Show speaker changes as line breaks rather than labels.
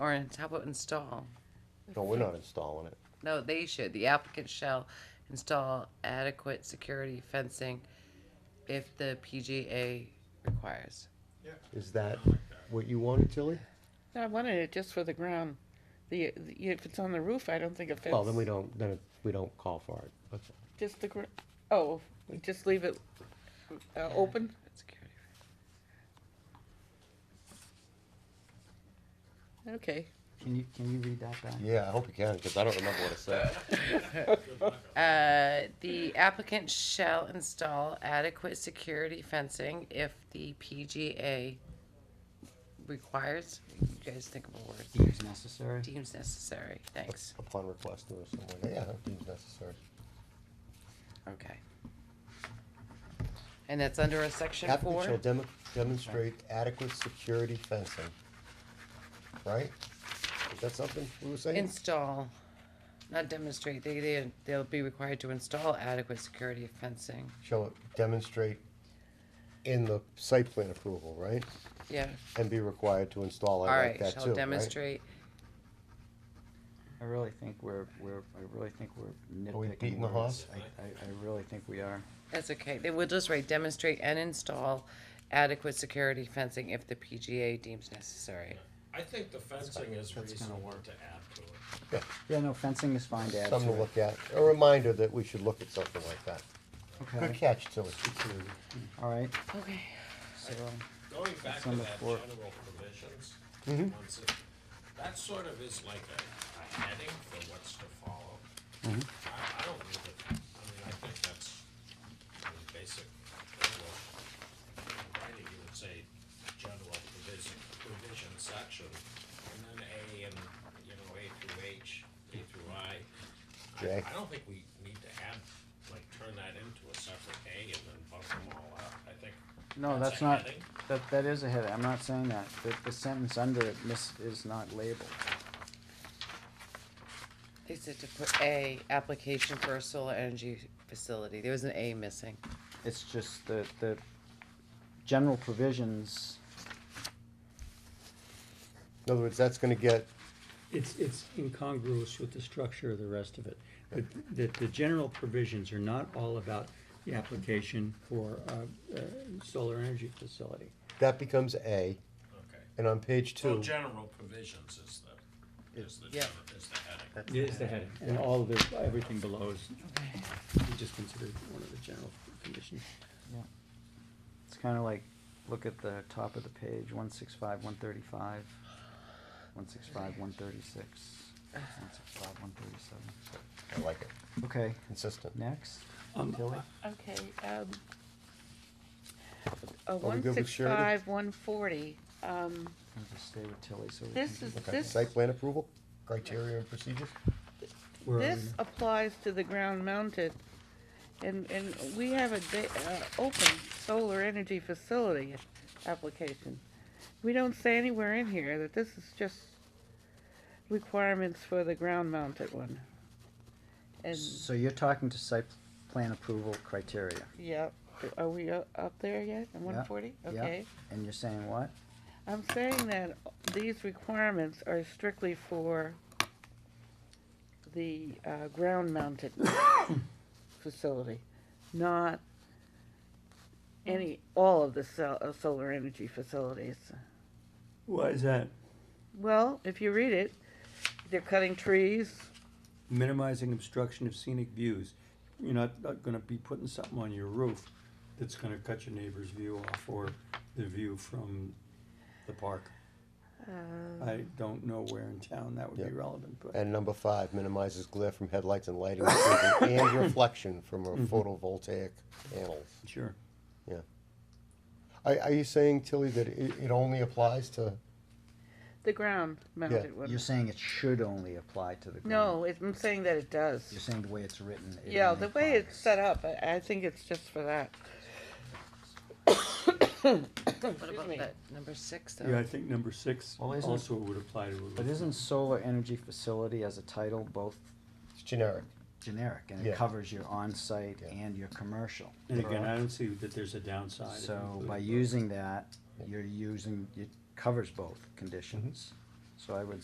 Or in- how about install?
No, we're not installing it.
No, they should. The applicant shall install adequate security fencing if the PGA requires.
Is that
Oh
what you wanted, Tilly?
No, I wanted it just for the ground. The, the- if it's on the roof, I don't think it fits.
Well, then we don't, then it- we don't call for it. That's all.
Just the, gr- oh, we just leave it, uh, open?
Security.
Okay.
Can you, can you read that back?
Yeah, I hope you can, because I don't remember what it said.
Uh, the applicant shall install adequate security fencing if the PGA requires, you guys think of a word,
Deems necessary?
deems necessary. Thanks.
Upon request or something like that. Yeah, that seems necessary.
Okay. And that's under a section
Applicant shall
four?
dem- demonstrate adequate security fencing. Right? Is that something we were saying?
Install, not demonstrate, they, they, they'll be required to install adequate security fencing.
Shall demonstrate in the site plan approval, right?
Yeah,
And be required to install it
all
Oh, like
right,
that too,
shall
right?
demonstrate,
I really think we're, we're, I really think we're nitpicking.
Are we beating the
words.
horse?
I, I, I really think we are.
that's okay, they will just write demonstrate and install adequate security fencing if the PGA deems necessary.
I think the fencing
That's
is
gonna
reasonable
work.
to add to it.
Yeah, no, fencing is fine to add
Something to
to it.
look at. A reminder that we should look at something like that. Good
Okay,
catch, Tilly.
all right,
Okay.
so,
Going back
That's
to
number
that
four. Mm-hmm.
general provisions,
Mhm.
once it, that sort of is like a, a heading for what's to follow.
Mhm.
I, I don't read it, I mean, I think that's really basic English. In Writing, you would say general provision, provision section, and then A and, you know, A through H, A through I. I-
J.
I don't think we need to add, like, turn that into a separate A and then bump them all out, I think.
no,
That's
that's
a
not,
heading?
that, that is a heading, I'm not saying that, the, the sentence under it miss, is not labeled.
They said to put A, application for a solar energy facility, there was an A missing.
It's just the, the general provisions,
In other words, that's gonna get
It's, it's incongruous with the structure of the rest of it. That, that the general provisions are not all about the application for, uh, uh, solar energy facility.
That becomes A,
Okay.
and on page
So
two,
general provisions is the, is the,
Yeah.
gener- is the heading.
It is the heading, and all of the, everything below is, we just considered one of the general conditions.
it's kinda like, look at the top of the page, one six five, one thirty-five, one six five, one thirty-six, one six five, one thirty-seven.
I like it,
Okay,
consistent.
next,
Um,
Tilly?
Okay, um, uh,
we
one
good with
six
Sheridan?
five, one forty, um,
I'll just stay with Tilly so we can.
this is,
Okay,
this,
site plan approval, criteria and procedures?
where are we
this
now?
applies to the ground mounted. And, and we have a da- uh, open solar energy facility application. We don't say anywhere in here that this is just requirements for the ground mounted one. And,
So you're talking to site plan approval criteria,
yeah, are we u- up there yet, in one forty?
yeah.
Okay.
and you're saying what?
I'm saying that these requirements are strictly for the uh, ground-mounted facility, not any, all of the sol- uh, solar energy facilities.
Why is that?
Well, if you read it, they're cutting trees.
Minimizing obstruction of scenic views. You're not, not gonna be putting something on your roof that's gonna cut your neighbor's view off or the view from the park.
uh,
I don't know where in town that would
Yeah.
be relevant, but,
And number five, minimizes glare from headlights and lighting equipment and reflection from a photovoltaic panels.
sure.
Are, are you saying, Tilly, that it, it only applies to,
The ground-mounted
You're
one.
saying it should only apply to the ground?
No, it- I'm saying that it
You're
does.
saying the way it's written. it
Yeah,
only
the way it's
applies.
set up, I I think it's just for that.
What about that, number six
Yeah, I
though?
think number six
Well, isn't-
also would apply to. a
But isn't solar energy facility as a title both
it's generic?
generic and
Yeah.
it covers your on-site
Yeah.
and your commercial?
And again, I don't see that there's a downside. of
So
including
by
both.
using that, you're using, it covers both conditions. So I would